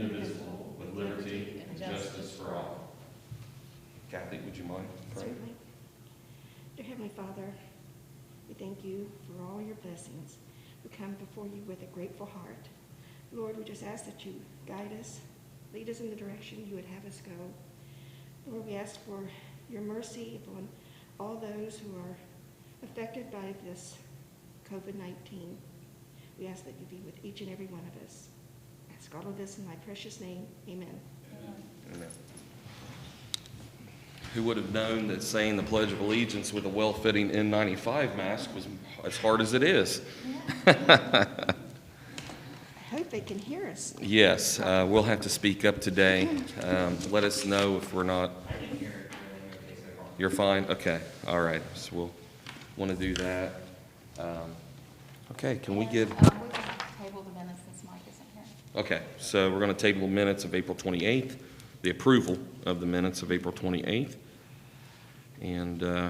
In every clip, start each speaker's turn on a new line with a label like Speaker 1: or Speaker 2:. Speaker 1: indivisible, with liberty and justice for all.
Speaker 2: Kathy, would you mind praying?
Speaker 3: Certainly. Dear Heavenly Father, we thank you for all your blessings. We come before you with a grateful heart. Lord, we just ask that you guide us, lead us in the direction you would have us go. Lord, we ask for your mercy upon all those who are affected by this COVID-19. We ask that you be with each and every one of us. Ask all of this in thy precious name. Amen.
Speaker 2: Amen. Who would have known that saying the Pledge of Allegiance with a well-fitting N95 mask was as hard as it is?
Speaker 3: I hope they can hear us.
Speaker 2: Yes, uh, we'll have to speak up today. Um, Let us know if we're not. You're fine? Okay, all right. So we'll want to do that. Um, Okay, can we get?
Speaker 4: Um, we can table the minutes since Mike isn't here.
Speaker 2: Okay, so we're going to table minutes of April 28th, the approval of the minutes of April 28th, and uh,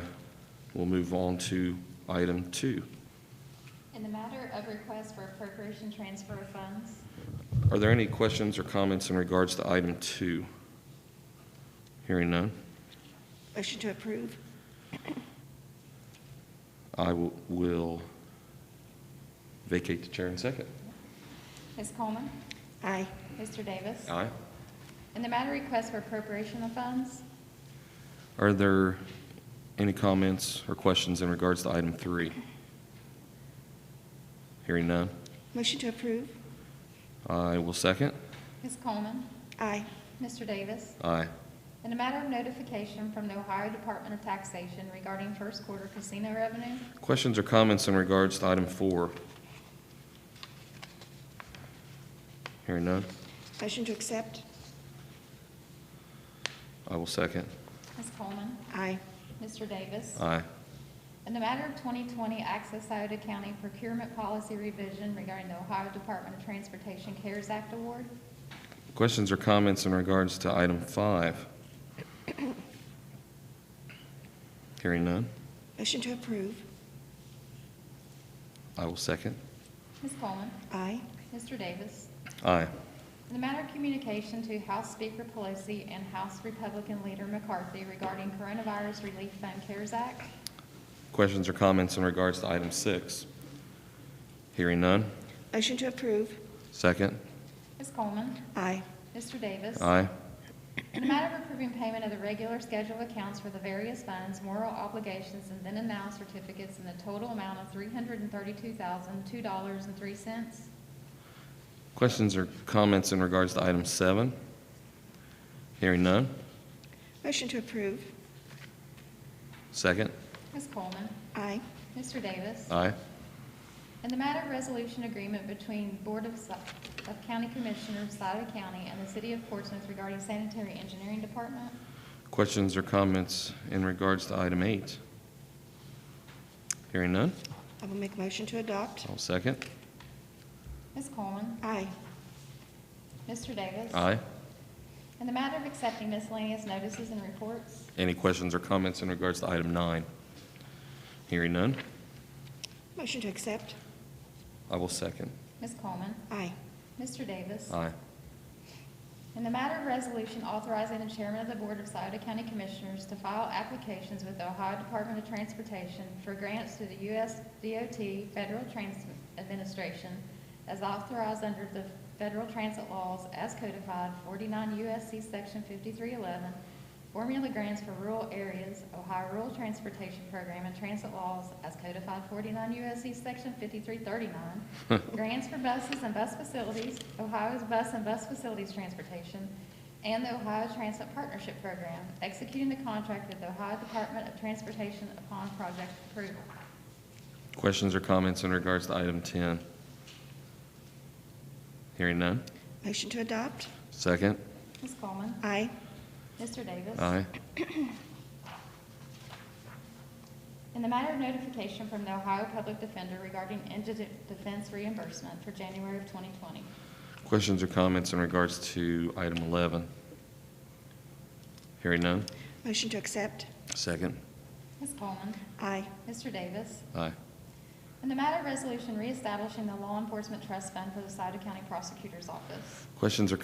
Speaker 2: we'll move on to item two.
Speaker 4: In the matter of request for appropriation transfer of funds,
Speaker 2: Are there any questions or comments in regards to item two? Hearing none,
Speaker 3: Motion to approve?
Speaker 2: I will- will vacate the chair in second.
Speaker 4: Ms. Coleman,
Speaker 3: Aye.
Speaker 4: Mr. Davis.
Speaker 2: Aye.
Speaker 4: In the matter of request for appropriation of funds,
Speaker 2: Are there any comments or questions in regards to item three? Hearing none,
Speaker 3: Motion to approve?
Speaker 2: I will second.
Speaker 4: Ms. Coleman,
Speaker 3: Aye.
Speaker 4: Mr. Davis.
Speaker 2: Aye.
Speaker 4: In the matter of notification from the Ohio Department of Taxation regarding first quarter casino revenue,
Speaker 2: Questions or comments in regards to item four? Hearing none,
Speaker 3: Motion to accept?
Speaker 2: I will second.
Speaker 4: Ms. Coleman,
Speaker 3: Aye.
Speaker 4: Mr. Davis.
Speaker 2: Aye.
Speaker 4: In the matter of 2020 Access Iota County procurement policy revision regarding the Ohio Department of Transportation CARES Act award,
Speaker 2: Questions or comments in regards to item five? Hearing none,
Speaker 3: Motion to approve?
Speaker 2: I will second.
Speaker 4: Ms. Coleman,
Speaker 3: Aye.
Speaker 4: Mr. Davis.
Speaker 2: Aye.
Speaker 4: In the matter of communication to House Speaker Pelosi and House Republican Leader McCarthy regarding Coronavirus Relief Fund CARES Act,
Speaker 2: Questions or comments in regards to item six? Hearing none,
Speaker 3: Motion to approve?
Speaker 2: second.
Speaker 4: Ms. Coleman,
Speaker 3: Aye.
Speaker 4: Mr. Davis.
Speaker 2: Aye.
Speaker 4: In the matter of approving payment of the regular schedule accounts for the various funds, moral obligations, and then and now certificates in the total amount of $332,002.03,
Speaker 2: Questions or comments in regards to item seven? Hearing none,
Speaker 3: Motion to approve?
Speaker 2: second.
Speaker 4: Ms. Coleman,
Speaker 3: Aye.
Speaker 4: Mr. Davis.
Speaker 2: Aye.
Speaker 4: And the matter of resolution agreement between Board of, Si- of County Commissioners, Sauter County, and the City of Portsmouth regarding sanitary engineering department,
Speaker 2: Questions or comments in regards to item eight? Hearing none,
Speaker 3: I will make motion to adopt?
Speaker 2: I'll second.
Speaker 4: Ms. Coleman,
Speaker 3: Aye.
Speaker 4: Mr. Davis.
Speaker 2: Aye.
Speaker 4: And the matter of accepting miscellaneous notices and reports,
Speaker 2: Any questions or comments in regards to item nine? Hearing none,
Speaker 3: Motion to accept?
Speaker 2: I will second.
Speaker 4: Ms. Coleman,
Speaker 3: Aye.
Speaker 4: Mr. Davis.
Speaker 2: Aye.
Speaker 4: In the matter of resolution authorizing the chairman of the Board of Sauter County Commissioners to file applications with the Ohio Department of Transportation for grants to the U.S. DOT Federal Transit Administration as authorized under the federal transit laws as codified 49 U.S.C. Section 5311, formula grants for rural areas, Ohio Rural Transportation Program and transit laws as codified 49 U.S.C. Section 5339, Grants for buses and bus facilities, Ohio's Bus and Bus Facilities Transportation, and the Ohio Transit Partnership Program, executing the contract with the Ohio Department of Transportation upon project approval.
Speaker 2: Questions or comments in regards to item 10? Hearing none,
Speaker 3: Motion to adopt?
Speaker 2: second.
Speaker 4: Ms. Coleman?
Speaker 3: Aye.
Speaker 4: Mr. Davis?
Speaker 2: Aye.
Speaker 4: In the matter of notification from the Ohio Public Defender regarding indigent defense reimbursement for January of 2020.
Speaker 2: Questions or comments in regards to item 11? Hearing none,
Speaker 3: Motion to accept?
Speaker 2: second.
Speaker 4: Ms. Coleman?
Speaker 3: Aye.
Speaker 4: Mr. Davis?
Speaker 2: Aye.
Speaker 4: In the matter of resolution reestablishing the Law Enforcement Trust Fund for the Sauter County Prosecutor's Office.
Speaker 2: Questions or